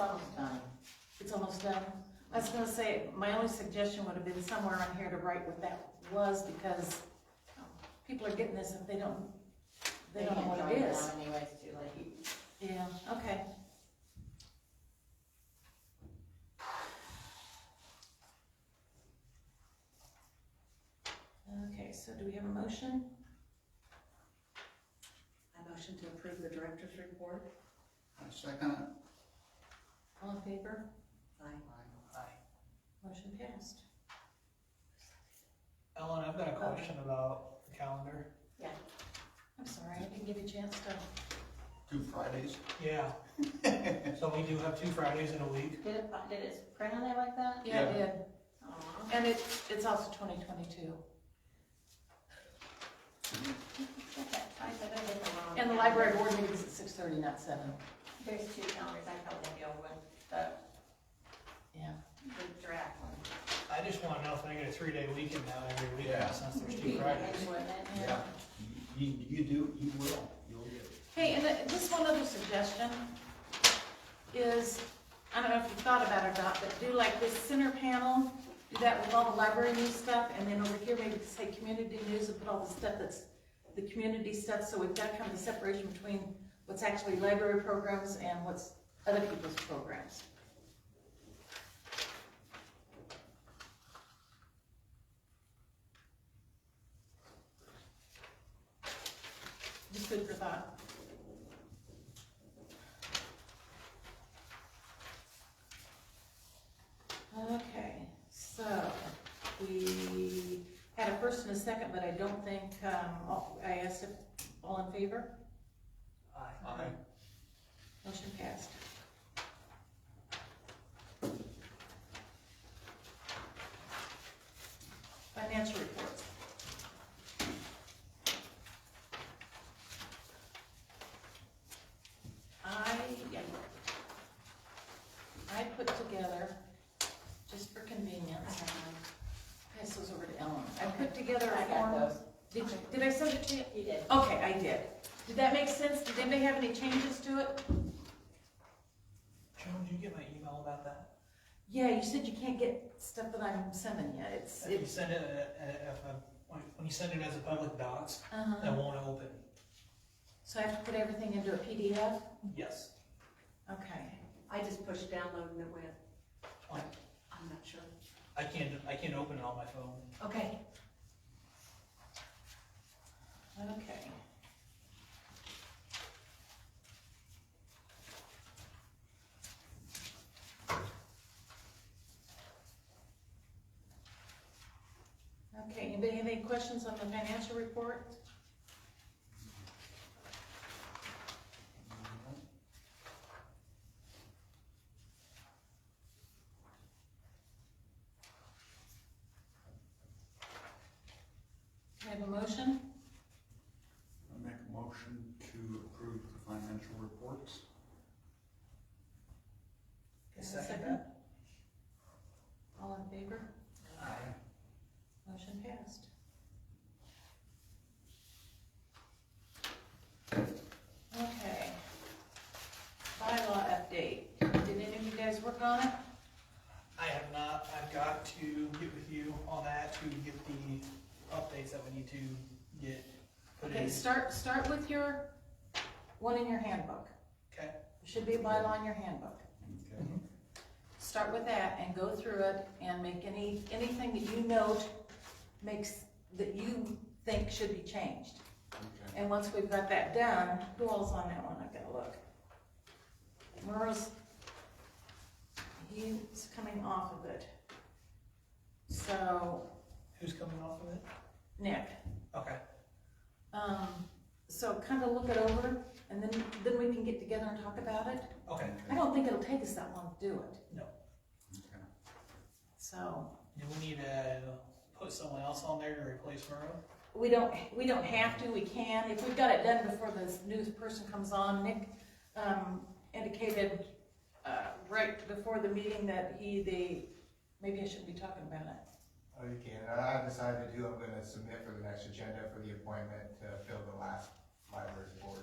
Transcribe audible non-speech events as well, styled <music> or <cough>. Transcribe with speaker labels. Speaker 1: almost done. It's almost done. I was gonna say, my only suggestion would have been somewhere on here to write what that was, because um, people are getting this if they don't, they don't know
Speaker 2: can't
Speaker 1: what
Speaker 2: drive
Speaker 1: it
Speaker 2: it
Speaker 1: is.
Speaker 2: down Anyways, too late.
Speaker 1: Yeah, okay. Okay, so do we have a motion?
Speaker 3: I motion to approve the director's report.
Speaker 4: I second it.
Speaker 1: All in favor?
Speaker 3: Aye.
Speaker 1: Motion passed.
Speaker 5: Ellen, I've got a question about the calendar.
Speaker 1: I'm sorry, I didn't give you a chance to.
Speaker 4: Two Fridays.
Speaker 5: Yeah, <laughs> so we do have two Fridays in a week.
Speaker 2: Did it, did it print on there like that?
Speaker 1: Yeah, I did.
Speaker 2: Aw.
Speaker 1: And it, it's also twenty twenty-two.
Speaker 2: I said I did the wrong.
Speaker 1: And the library board meeting is at six thirty, not seven.
Speaker 2: There's two calendars, I probably have the old one, the,
Speaker 1: Yeah.
Speaker 2: the draft one.
Speaker 5: I just wanna know if I get a three-day weekend now every
Speaker 4: Yeah.
Speaker 5: weekend since there's
Speaker 2: Be
Speaker 5: two Fridays.
Speaker 2: in, wouldn't it?
Speaker 4: Yeah. You, you do, you will, you'll get it.
Speaker 1: Hey, and th- just one other suggestion is, I don't know if you thought about it or not, but do like this center panel, do that with all the library news stuff, and then over here maybe say community news and put all the stuff that's the community stuff, so we've got kind of a separation between what's actually library programs and what's other people's programs. Just food for thought. Okay, so we had a first and a second, but I don't think, um, all- I asked if, all in favor?
Speaker 4: Aye.
Speaker 1: Motion passed. Financial reports. I, yeah. I put together, just for
Speaker 2: I
Speaker 1: convenience,
Speaker 2: have mine.
Speaker 1: this was over to Ellen. I put together
Speaker 2: I
Speaker 1: a
Speaker 2: got
Speaker 1: form.
Speaker 2: those.
Speaker 1: Did, did I send it to you?
Speaker 2: You did.
Speaker 1: Okay, I did. Did that make sense? Did anybody have any changes to it?
Speaker 5: Joan, did you get my email about that?
Speaker 1: Yeah, you said you can't get stuff that I'm sending you, it's,
Speaker 5: If you
Speaker 1: it's,
Speaker 5: send it, uh, uh, if, I- when when you send it as a public docs, it
Speaker 1: uh
Speaker 5: won't open.
Speaker 1: so I have to put everything into a PDF?
Speaker 5: Yes.
Speaker 1: Okay,
Speaker 3: I just pushed download and it went. I'm not sure.
Speaker 5: I can't, I can't open it on my phone.
Speaker 3: Okay.
Speaker 1: okay. Okay, anybody have any questions on the financial report? Can I have a motion?
Speaker 4: I make a motion to approve the financial reports.
Speaker 1: Can I have a
Speaker 5: Second
Speaker 1: All in favor?
Speaker 5: Aye.
Speaker 1: Motion passed. Okay. Bylaw update. Did any of you guys work on it?
Speaker 5: I have not, I've got to get with you on that to get the updates that we need to get put in.
Speaker 1: Okay, start, start with your, one in your handbook.
Speaker 5: Okay.
Speaker 1: There Should be a bylaw in your handbook.
Speaker 4: Okay.
Speaker 1: Start with that and go through it and make any, anything that you note makes, that you think should be changed.
Speaker 4: Okay.
Speaker 1: And once we've got that done, who else on that one? I've gotta look. Merle's, he's coming off of it. So,
Speaker 5: Who's coming off of it?
Speaker 1: Nick,
Speaker 5: Okay,
Speaker 1: um, so kinda look it over and then, then we can get together and talk about it.
Speaker 5: okay.
Speaker 1: I don't think it'll take us that long to do it,
Speaker 4: Okay.
Speaker 1: so.
Speaker 5: Do we need to put someone else on there to replace Merle?
Speaker 1: We don't, we don't have to, we can, if we've got it done before this new person comes on, Nick, um, indicated, uh, right before the meeting that he, they, maybe I shouldn't be talking about it.
Speaker 6: Oh, you can. I have decided who I'm gonna submit for the next agenda for the appointment to fill the last library board